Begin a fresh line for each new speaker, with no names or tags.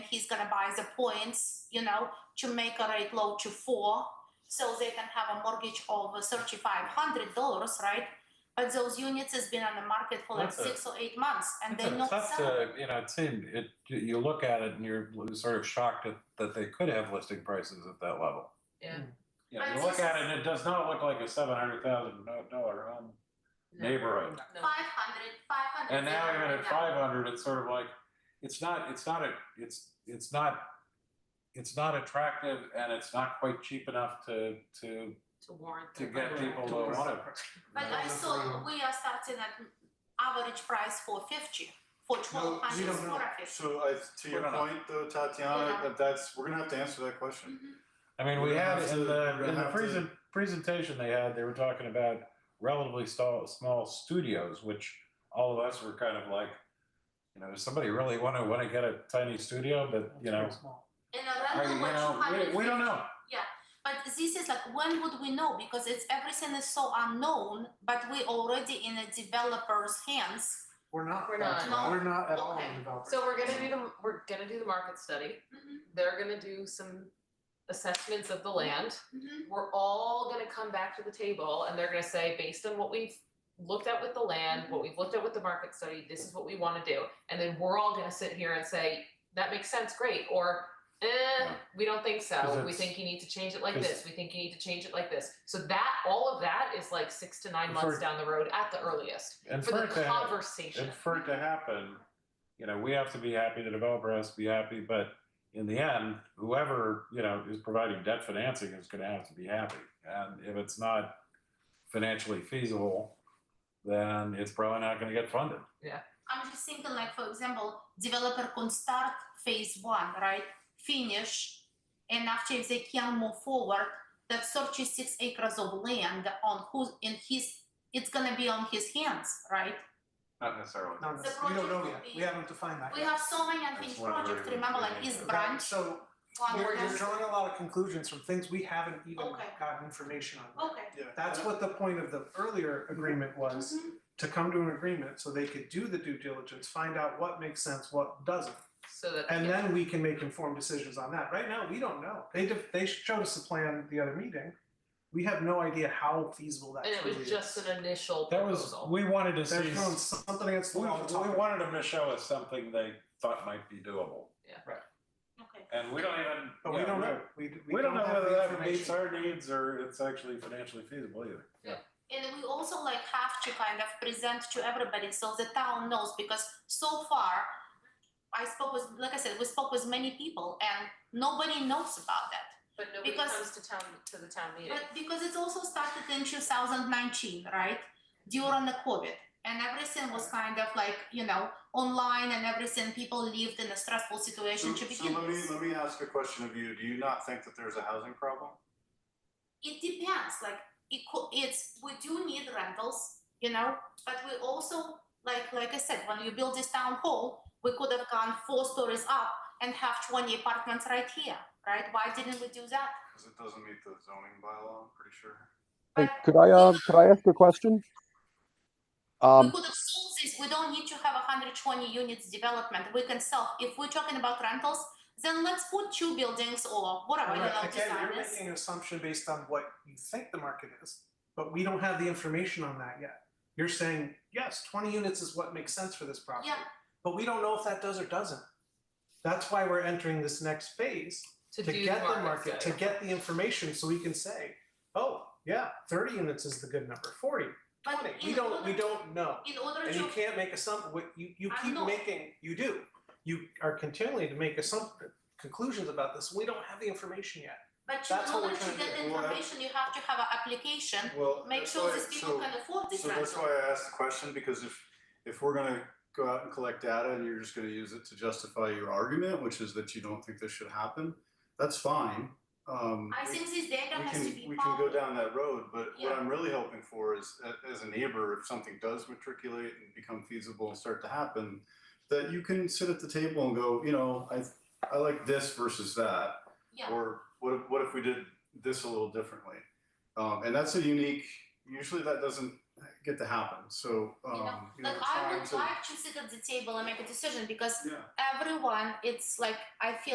gonna buy the points, you know, to make a rate low to four, so they can have a mortgage of thirty-five hundred dollars, right? But those units has been on the market for like
That's a-
six or eight months, and they
It's
not
tough uh,
sell.
to, you know, it seemed, it, you look at it and you're sort of shocked that, that they could have listing prices at that level.
Yeah.
You
But
know, you
this
look at it
is-
and it does not look like a seven hundred thousand dollar home neighborhood.
No.
Five hundred, five hundred.
And now even at five hundred, it's sort of like, it's not, it's not a, it's, it's not, it's not attractive and it's not quite cheap enough to, to,
To warrant.
to
the-
get people to want it.
But I saw we are starting at average price for fifty, for
No,
twelve
we
hundred
don't know.
square feet.
So I, to your
We're gonna-
point though, Tatiana,
Yeah.
that that's, we're gonna have to answer that question.
Mhm.
I mean, we
We're gonna
had
have
in
to-
the,
we're
in
gonna
the
have to-
present, presentation they had, they were talking about relatively small, small studios, which all of us were kind of like, you know, does somebody really wanna, wanna get a tiny studio, but, you know,
And a
I,
rental
you
was two
know,
hundred.
we, we don't know.
But this is like, when would we know? Because it's, everything is so unknown, but we already in a developer's hands.
We're not.
We're not.
Tatiana. We're not at all
Okay.
developers.
So we're gonna do the, we're gonna do the market study,
Mhm,
they're gonna do some assessments of the land.
mhm.
Mm-hmm.
We're all gonna come back to the table and they're gonna say, based on what we've looked at with the land,
Mm-hmm.
what we've looked at with the market study, this is what we wanna do. And then we're all gonna sit here and say, that makes sense, great, or eh,
Yeah.
we don't think
Because
so, we
it's-
think you need to change it like
because-
this, we think you need to change it like this. So that, all of that is like six to nine
For-
months down the road at the earliest,
And
for
for
the
it to, hap-
conversation.
and for it to happen, you know, we have to be happy, the developer has to be happy, but in the end, whoever, you know, is providing debt financing is gonna have to be happy. And if it's not financially feasible, then it's probably not gonna get funded.
I'm just thinking like, for example, developer can start phase one, right? Finish, and after if they can move forward, that thirty-six acres of land on who's, in his, it's gonna be on his hands, right?
Not necessarily.
No, no,
The
we don't know
project
yet,
would be-
we haven't defined that
We
yet.
have so many
That's
unfinished
one of the
projects,
very
remember, like
beginning
East
of-
Right,
Branch,
So
one
you're,
more.
you're drawing a lot of conclusions from things we haven't even
Okay.
gotten information on.
Okay.
Yeah.
That's what the point of the earlier agreement was,
Mhm.
to come to an agreement so they could do the due diligence, find out what makes sense, what doesn't.
So that.
And then we can make informed decisions on that. Right now, we don't know. They def- they showed us the plan at the other meeting. We have no idea how feasible that
And it
truly
was just
is.
an initial
That was,
proposal.
we wanted to
They're
see,
throwing something against the
we, we
wall. to talk about.
wanted them to show us something they thought might be doable.
Okay.
And we don't even.
But we
yeah,
don't know. We, we,
We don't know
have
whether
the
that meets
information.
our needs or it's actually financially feasible either.
Yeah.
And we also like have to kind of present to everybody so the town knows because so far I spoke with, like I said, we spoke with many people and nobody knows about that.
But nobody
Because-
comes to town, to the town meeting.
But because it also started in two thousand nineteen, right? During the COVID and everything was kind of like, you know, online and everything, people lived in a stressful situation
So,
to
so
begin
let me,
with.
let me ask a question of you. Do you not think that there's a housing problem?
It depends, like it co- it's, we do need rentals, you know, but we also, like, like I said, when you build this town hall, we could have gone four stories up and have twenty apartments right here, right? Why didn't we do that?
Cause it doesn't meet the zoning bylaw, I'm pretty sure.
Hey,
But-
could I, uh, could I ask a question?
We
Um,
could have sold this, we don't need to have hundred twenty units development, we can sell, if we're talking about rentals, then let's put two buildings or whatever, you know,
Right, Again,
design
you're
is.
making an assumption based on what you think the market is, but we don't have the information on that yet. You're saying, yes, twenty units is what makes sense for this property.
Yeah.
But we don't know if that does or doesn't. That's why we're entering this next phase,
to
to
do
get the
market
market, to
study.
get the information, so we can say, oh, yeah, thirty units is the good number, forty,
But
twenty, we
in
don't, we
order-
don't know.
In order
And
to.
you can't make assump, what you, you
I
keep
know.
making, you do, you are continuing to make assump, conclusions about this, we don't have the information yet.
But
That's
in
what we're
order to
trying to
get
do. Well, I-
information, you have to have an application,
Well,
make
that's
sure
why-
these people
so-
can afford this
So that's
rental.
why I asked the question, because if, if we're gonna go out and collect data and you're just gonna use it to justify your argument, which is that you don't think this should happen, that's fine. Um,
I
we-
think this data
we
has to
can,
be
we can go
public.
down that road, but
Yeah.
what I'm really hoping for is, a- as a neighbor, if something does matriculate and become feasible and start to happen, that you can sit at the table and go, you know, I, I like this versus that,
Yeah,
or what if, what if we did this a little differently? Um, and that's a unique, usually that doesn't get to happen, so,
know,
um, you know,
like I
trying
would
to,
like to sit at the table and make a decision because
yeah.
everyone, it's like, I feel